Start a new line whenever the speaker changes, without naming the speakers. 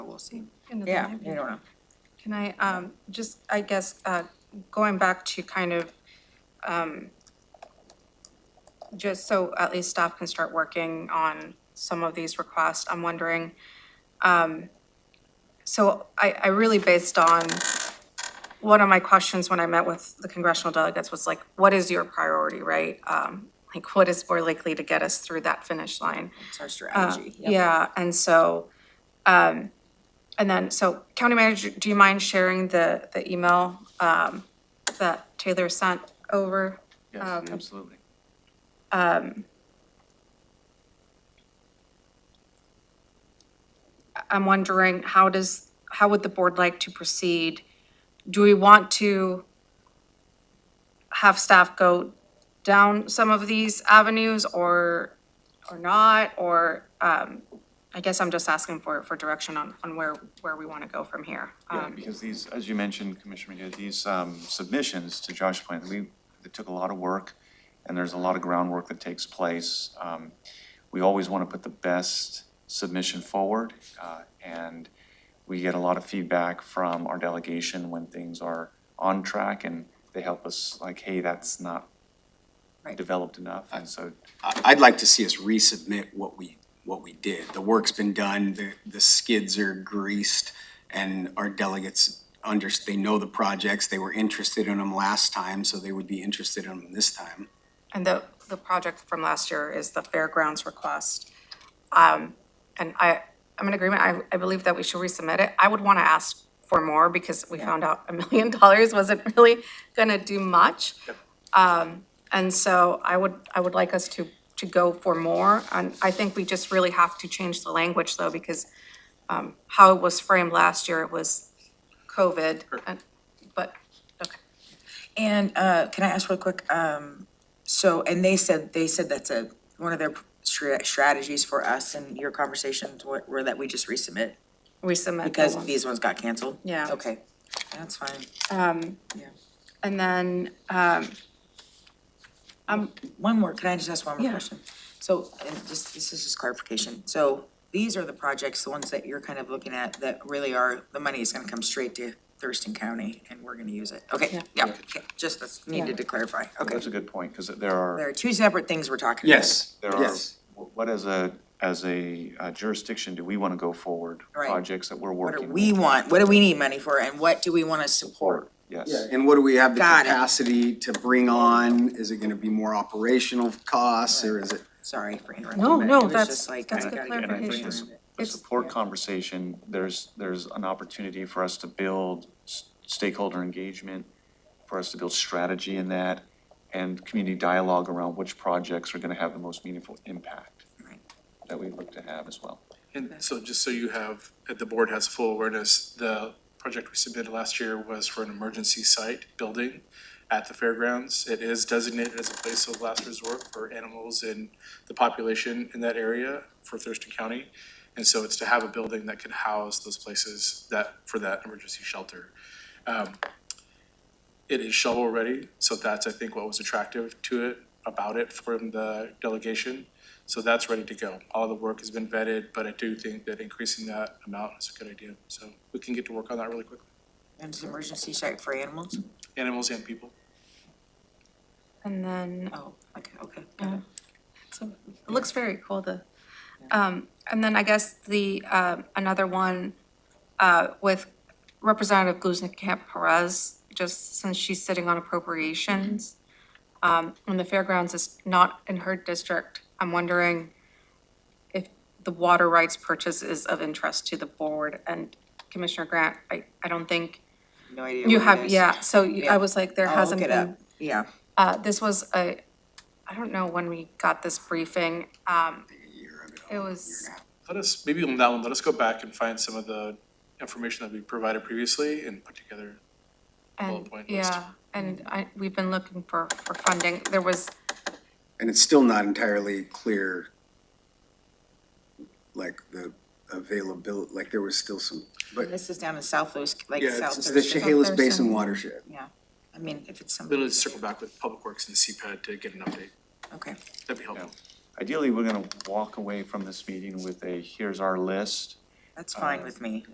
we'll see.
Another
Yeah,
maybe.
I don't know.
Can I, um, just, I guess, uh, going back to kind of, um, just so at least staff can start working on some of these requests, I'm wondering, um, so I, I really based on, one of my questions when I met with the congressional delegates was like, what is your priority, right? Um, like, what is more likely to get us through that finish line?
It's our strategy. Yep.
Uh, Yeah, and so, um, and then, so county manager, do you mind sharing the, the email, um, that Taylor sent over?
Um,
Yes, absolutely.
I'm wondering, how does, how would the board like to proceed? Do we want to have staff go down some of these avenues or, or not? Or, um, I guess I'm just asking for, for direction on, on where, where we want to go from here.
Yeah,
Um,
because these, as you mentioned, Commissioner McGee, these um, submissions, to Josh's point, we, it took a lot of work, and there's a lot of groundwork that takes place. Um, We always want to put the best submission forward, uh, and we get a lot of feedback from our delegation when things are on track, and they help us, like, hey, that's not
Right.
developed enough, and so
I- I'd like to see us resubmit what we, what we did. The work's been done, the, the skids are greased, and our delegates under, they know the projects, they were interested in them last time, so they would be interested in them this time.
And the, the project from last year is the fairgrounds request. Um, and I, I'm in agreement, I, I believe that we should resubmit it. I would want to ask for more because we found out a million dollars wasn't really gonna do much. Um, and so I would, I would like us to, to go for more. And I think we just really have to change the language though, because um, how it was framed last year, it was COVID. and- But, okay,
And, uh, can I ask real quick, um, so, and they said, they said that's a, one of their stra- strategies for us and your conversations were, were that we just resubmit
resubmit. the
because
one.
these ones got canceled?
Oh. Yeah. Um,
Okay, that's fine.
And then,
One more, can I just ask one more
Yeah.
question? So, and just, this is just clarification, so these are the projects, the ones that you're kind of looking at that really are, the money is gonna come straight to Thurston County and we're gonna use it, okay,
Yeah.
yeah, okay, just that's needed to clarify, okay.
that's a good point, because there are.
There are two separate things we're talking about.
Yes,
there are,
yes.
what as a, as a uh, jurisdiction do we want to go forward?
Right.
Projects that we're
What
working
do
with.
we want, what do we need money for, and what do we wanna support?
Yes,
And what do we have the
Got it.
capacity to bring on? Is it gonna be more operational costs, or is it?
Sorry for interrupting,
No,
but
no,
it was
that's-
just like, I
that's
gotta
good
get
and I think
clarification.
this,
around it.
the
It's-
support conversation, there's, there's an opportunity for us to build s- stakeholder engagement, for us to build strategy in that, and community dialogue around which projects are going to have the most meaningful impact
Right.
that we look to have as well.
And so just so you have, that the board has full awareness, the project we submitted last year was for an emergency site building at the fairgrounds. It is designated as a place of last resort for animals and the population in that area for Thurston County. And so it's to have a building that can house those places that, for that emergency shelter. Um, It is shovel-ready, so that's, I think, what was attractive to it, about it from the delegation. So that's ready to go. All the work has been vetted, but I do think that increasing that amount is a good idea. So we can get to work on that really quickly,
And it's an emergency site for animals?
animals and people.
And then,
Oh, okay, okay, got
yeah.
it.
So, it looks very cool, the, um, and then I guess the, um, another one, uh, with Representative Guznikamp Perez, just since she's sitting on appropriations, um, and the fairgrounds is not in her district, I'm wondering if the water rights purchase is of interest to the board and Commissioner Grant, I, I don't think
No idea
you
what it
have,
is.
yeah, so you- I was like, there
I'll
hasn't
look
been.
it up, yeah.
Uh, this was a, I don't know when we got this briefing, um, it was,
Let us, maybe on that one, let us go back and find some of the information that we provided previously and put together.
and,
Bullet point list. Mm-hmm.
yeah, and I, we've been looking for, for funding, there was,
And it's still not entirely clear, like, the availability, like, there was still some, but,
This is down in South Louis, like
yeah,
South
it's it's the
Thurston.
Chehalis
Thurston.
Basin watershed.
Yeah, I mean, if it's
Then
something,
let's circle back with Public Works and CPAD to get an update.
okay.
That'd be helpful.
Ideally, we're going to walk away from this meeting with a, here's our list.
Uh,
That's fine with me.